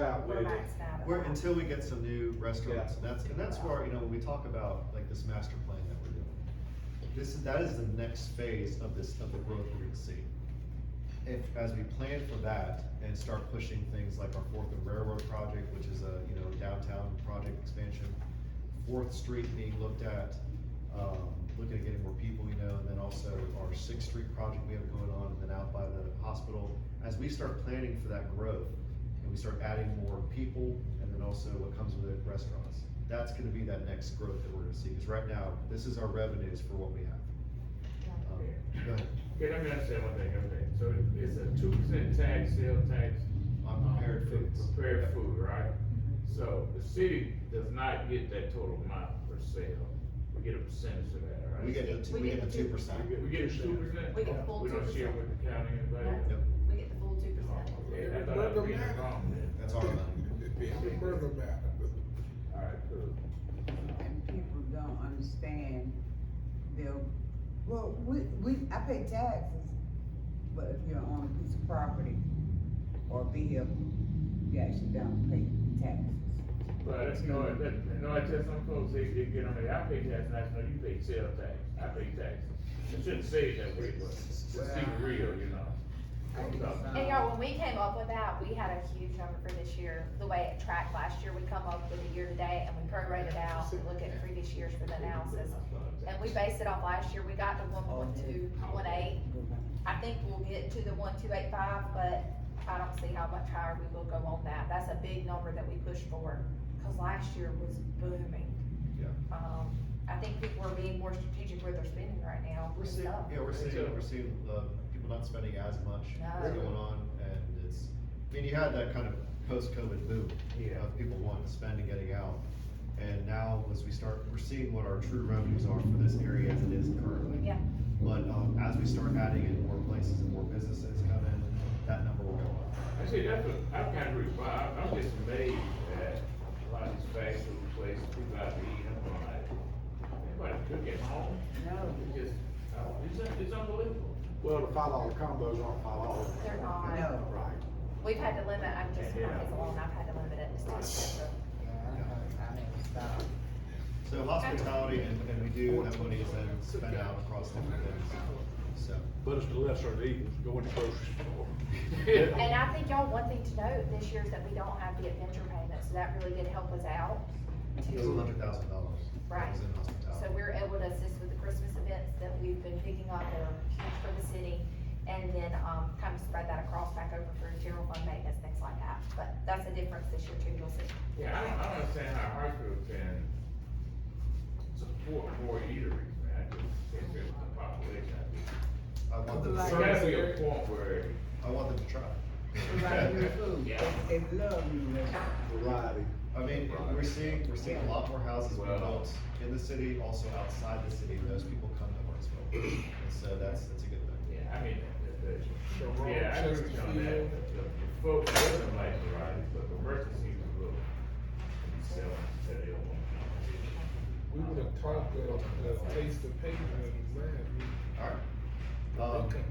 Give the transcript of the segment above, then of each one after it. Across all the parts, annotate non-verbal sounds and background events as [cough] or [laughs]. Yeah, we're we- maxed out. at We're, that. until we get some new restaurants, and that's, and that's where, you know, when we talk about like this master plan that we're doing. This, is that is the next phase of this, of the growth we're gonna see. If, as we plan for that and start pushing things like our Fourth and Railroad project, which is a, you know, downtown project expansion, Fourth Street being looked at, um, looking at getting more people, you know, and then also our Sixth Street project we have going on, and then out by the hospital. As we start planning for that growth, and we start adding more people, and then also what comes with it, restaurants. That's gonna be that next growth that we're gonna see, because right now, this is our revenues for what we have. Um, Go ahead, Okay, let me understand one thing, okay, so it's a two percent tax, sales tax. on um, prepared foods. Prepared food, right? So the city does not get that total amount for sale, we get a percentage of that, right? We get the, two- we get the two percent. We get- We get two percent? We get the full We don't share 2%. with the county and anybody? Yep, We get the full two percent. Oh, okay, I thought I was reading it wrong then. that's our amount. It doesn't matter. All right, cool. And people don't understand, they'll, well, we, we, I pay taxes, but if you're on a piece of property or vehicle, you actually don't pay taxes. But that's no, that, no, I tell some folks, they, they get on there, I pay tax, and I know you pay sales tax, I pay taxes. I shouldn't say it that way, but it's even real, you know? I'm talking- And y'all, when we came up with that, we had a huge number for this year, the way it tracked last year, we come up with a year to date and we prorated out, we look at previous years for the analysis. And we based it off last year, we got to one point two one eight, I think we'll get to the one two eight five, but I don't see how much higher we will go on that, that's a big number that we pushed for, cause last year was booming. Yeah. Um, I think people are being more strategic where they're spending right now, We're It's seeing, tough. yeah, we're seeing, we're seeing, uh, people not spending as much, what's No. going on, and it's, I mean, you had that kind of post-COVID boom. Yeah. Of people wanting to spend and getting out, and now as we start, we're seeing what our true revenues are for this area as it is currently. Yeah. But, um, as we start adding in more places and more businesses come in, that number will go up. Actually, that's what, I kind of agree, with Bob. I'm just amazed at a lot of these fast food places, people out to eat, I'm like, everybody cook at home, No, it's just, I don't- it's, un- it's unbelievable. Well, the five dollar combos aren't five dollars. They're not. no. Right. We've had to limit, I'm just, not as long, I've had to limit it, it's too expensive. [laughs] So hospitality, and, and we do have money that's spent out across different things, so. But it's the lesser of evils, going to grocery store. And I think y'all, one thing to note this year is that we don't have the adventure payment, so that really did help us out. It was a hundred thousand dollars. Right. in So hospitality. we're able to assist with the Christmas events that we've been picking up that are huge for the city. And then, um, kind of spread that across back over for general fund maintenance, things like that. But that's a difference this year too, you'll see. Yeah, I don't, I don't understand how hospitals can support more eateries, man, I just can't figure the population. out there. I want them, to There try- gotta be a point where, I want them to try. Right, new food, Yeah. they, they love new restaurants. [laughs] Variety. [laughs] I mean, we're seeing, we're seeing a lot more houses being built in the city, also outside the city, and those people come to Hartsville. And so that's, that's a good thing. yeah, I mean, the- the- The the- wrong yeah, I agree with you on that. The Chesterfield. the Folks doesn't like varieties, but the merchants seem to really be selling, so they don't want competition. We would have talked of, uh, taste of paper and man, Alright. we, Uh, Um, okay.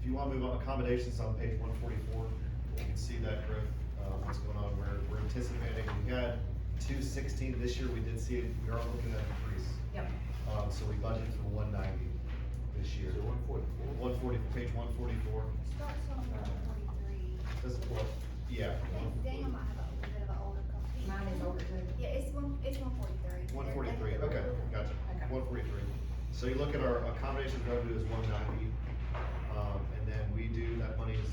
if you wanna move on, accommodations on page one forty-four, you can see that growth, uh, what's going on, we're, we're anticipating, we had two sixteen this year, we did see, it. we are looking at an increase. Yep. Um, so we budgeted for one ninety this year. one forty-four? One forty, page one forty-four, Starts on number forty-three. does, well, yeah, That's damn, I have a little bit of an older computer. Mine is over too. Yeah, it's one, it's one forty-three. One forty-three, okay, gotcha, Okay. one forty-three. So you look at our accommodation revenue is one ninety, um, and then we do, that money is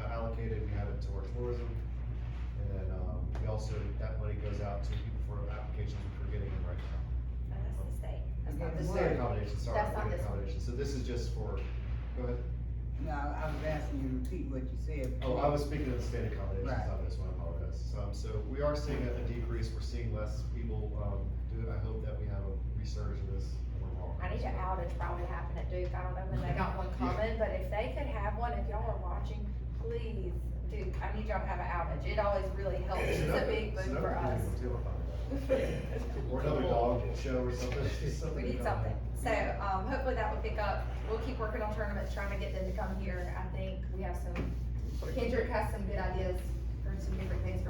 uh, allocated, we have it to our tourism. And then, um, we also, that money goes out to people for applications which we're getting in right now. And that's the state. That's not the Again, State city. accommodation, sorry, That's not state this one. accommodation, so this is just for, go ahead, No, I was asking you to repeat what you said. oh, I was speaking of the state accommodations, Right. not this one, I apologize. Um, so we are seeing a a decrease, we're seeing less people, um, do it, I hope that we have a resurgence of this, we're wrong. I need an outage probably happen at Duke, I don't know when they got one Yeah. coming, but if they could have one, if y'all are watching, please, Duke, I need y'all to have an outage, it always really helps, it's a big boon for us. Or another dog show or something. [laughs] [laughs] We need something, so, um, hopefully that will pick up, we'll keep working on tournaments, trying to get them to come here, I think we have some, Kendrick has some good ideas for some different things for